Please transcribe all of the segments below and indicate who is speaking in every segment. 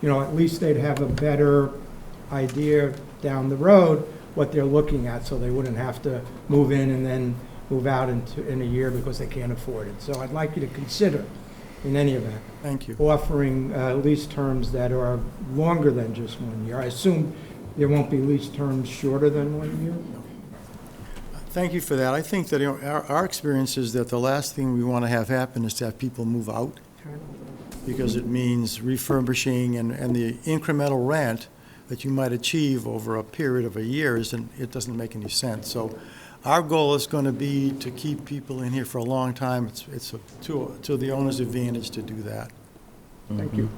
Speaker 1: you know, at least they'd have a better idea down the road what they're looking at, so they wouldn't have to move in and then move out into, in a year because they can't afford it. So I'd like you to consider, in any event,
Speaker 2: Thank you.
Speaker 1: offering uh, lease terms that are longer than just one year. I assume there won't be lease terms shorter than one year?
Speaker 2: Thank you for that. I think that you know, our, our experience is that the last thing we want to have happen is to have people move out because it means refurbishing and, and the incremental rent that you might achieve over a period of a year isn't, it doesn't make any sense. So our goal is going to be to keep people in here for a long time. It's, it's a- to, to the owner's advantage to do that.
Speaker 1: Thank you.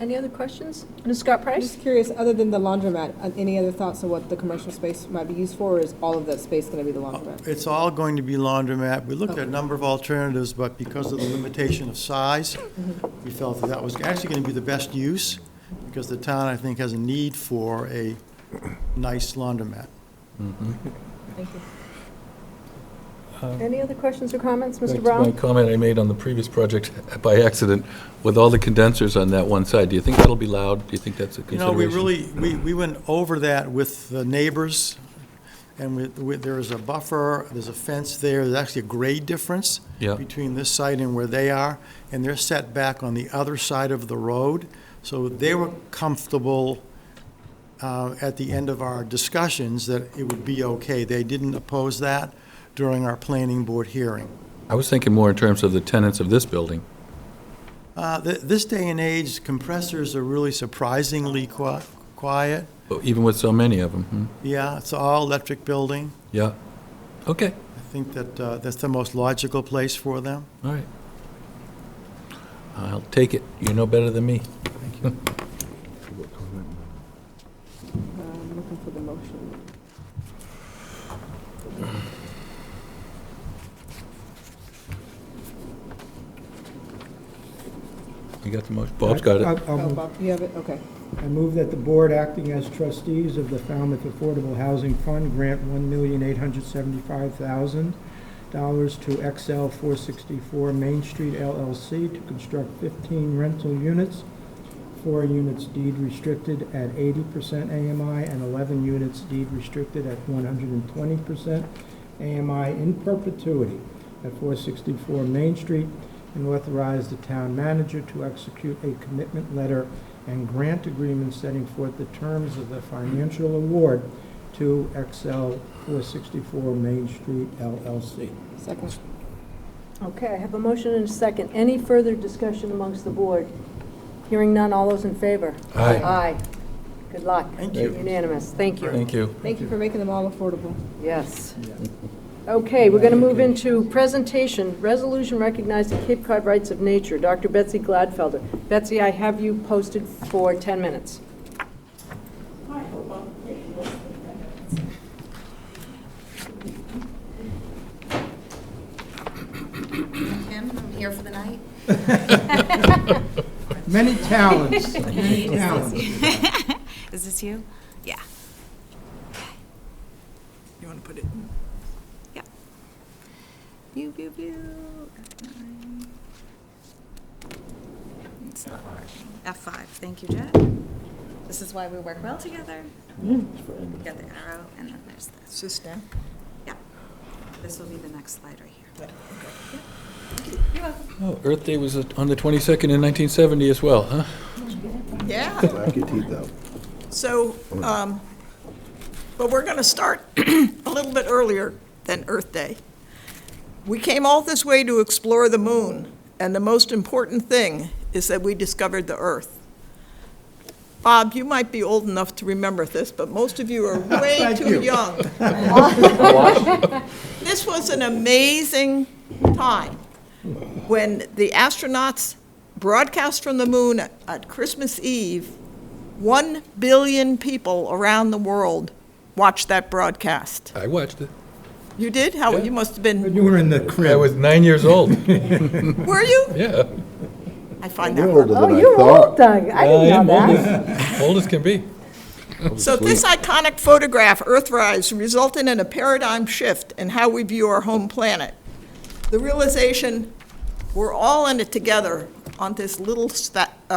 Speaker 3: Any other questions? Ms. Scott
Speaker 4: I'm
Speaker 3: Price?
Speaker 4: just curious, other than the laundromat, uh, any other thoughts on what the commercial space might be used for, or is all of that space going to be the laundromat?
Speaker 2: It's all going to be laundromat. We looked at a number of alternatives, but because of the limitation of size, we felt that that was actually going to be the best use, because the town, I think, has a need for a nice laundromat.
Speaker 4: Thank you.
Speaker 1: Uh,
Speaker 3: Any other questions or comments,
Speaker 5: Back
Speaker 3: Mr.
Speaker 5: to My
Speaker 3: Brown?
Speaker 5: comment I made on the previous project by accident, with all the condensers on that one side, do you think that'll be loud? Do you think that's a
Speaker 2: You know,
Speaker 5: consideration?
Speaker 2: we really, we, we went over that with the neighbors, and with, with, there is a buffer, there's a fence there, there's actually a grade difference
Speaker 5: Yeah.
Speaker 2: between this site and where they are, and they're set back on the other side of the road. So they were comfortable, uh, at the end of our discussions that it would be okay. They didn't oppose that during our planning board hearing.
Speaker 5: I was thinking more in terms of the tenants of this building.
Speaker 2: Uh, th- this day and age, compressors are really surprisingly qui- quiet.
Speaker 5: Even with so many of hmm? them,
Speaker 2: Yeah, it's an all-electric building.
Speaker 5: yeah. Okay,
Speaker 2: I think that uh, that's the most logical place for them.
Speaker 5: all right. I'll take it, you know better than me.
Speaker 4: Uh, I'm looking for the motion.
Speaker 5: You got the motion, Bob's got it.
Speaker 1: I'll- I'll
Speaker 4: Oh,
Speaker 1: move-
Speaker 4: Bob, you have it? Okay.
Speaker 1: I move that the board acting as trustees of the Falmouth Affordable Housing Fund grant $1,875,000 to XL 464 Main Street LLC to construct 15 rental units, four units deed restricted at 80% AMI and 11 units deed restricted at 120% AMI in perpetuity at 464 Main Street, and authorize the town manager to execute a commitment letter and grant agreement setting forth the terms of the financial award to XL 464 Main Street LLC.
Speaker 4: Second.
Speaker 3: Okay, I have a motion and a second. Any further discussion amongst the board? Hearing none, all those in favor?
Speaker 5: Aye.
Speaker 3: Aye. Good luck.
Speaker 2: Thank you.
Speaker 3: Unanimous, thank you.
Speaker 5: Thank you.
Speaker 4: Thank you for making them all affordable.
Speaker 3: Yes. Okay, we're going to move into presentation, resolution recognizing Cape Cod rights of nature. Dr. Betsy Gladfelder. Betsy, I have you posted for 10 minutes.
Speaker 6: Kim, I'm here for the night.
Speaker 1: Many talents, many talents.
Speaker 6: Is this you? Yeah. You want to put it? Yeah. Pew, pew, pew. F9. It's not working. F5, thank you, Jack. This is why we work well together. Got the arrow, and then there's this.
Speaker 7: System.
Speaker 6: Yeah. This will be the next slide right here. Yeah. You're welcome.
Speaker 5: Oh, Earth Day was on the 22nd in 1970 as well, huh?
Speaker 7: Yeah.
Speaker 8: Black your teeth out. Mm.
Speaker 7: So, um, but we're going to start a little bit earlier than Earth Day. We came all this way to explore the moon, and the most important thing is that we discovered the Earth. Bob, you might be old enough to remember this, but most of you are way
Speaker 1: Thank you.
Speaker 7: too young. This was an amazing time when the astronauts broadcast from the moon at- at Christmas Eve 1 billion people around the world watched that broadcast.
Speaker 5: I watched it.
Speaker 7: You did? How, you must have been,
Speaker 1: You were in the
Speaker 5: I was
Speaker 1: crib.
Speaker 5: nine years old,
Speaker 7: were you?
Speaker 5: yeah.
Speaker 7: I find
Speaker 8: You're
Speaker 7: that.
Speaker 8: older than I thought.
Speaker 3: Doug. I didn't know that.
Speaker 5: Old as can be.
Speaker 7: So this iconic photograph, Earthrise, resulted in a paradigm shift in how we view our home planet. The realization, we're all in it together on this little sta-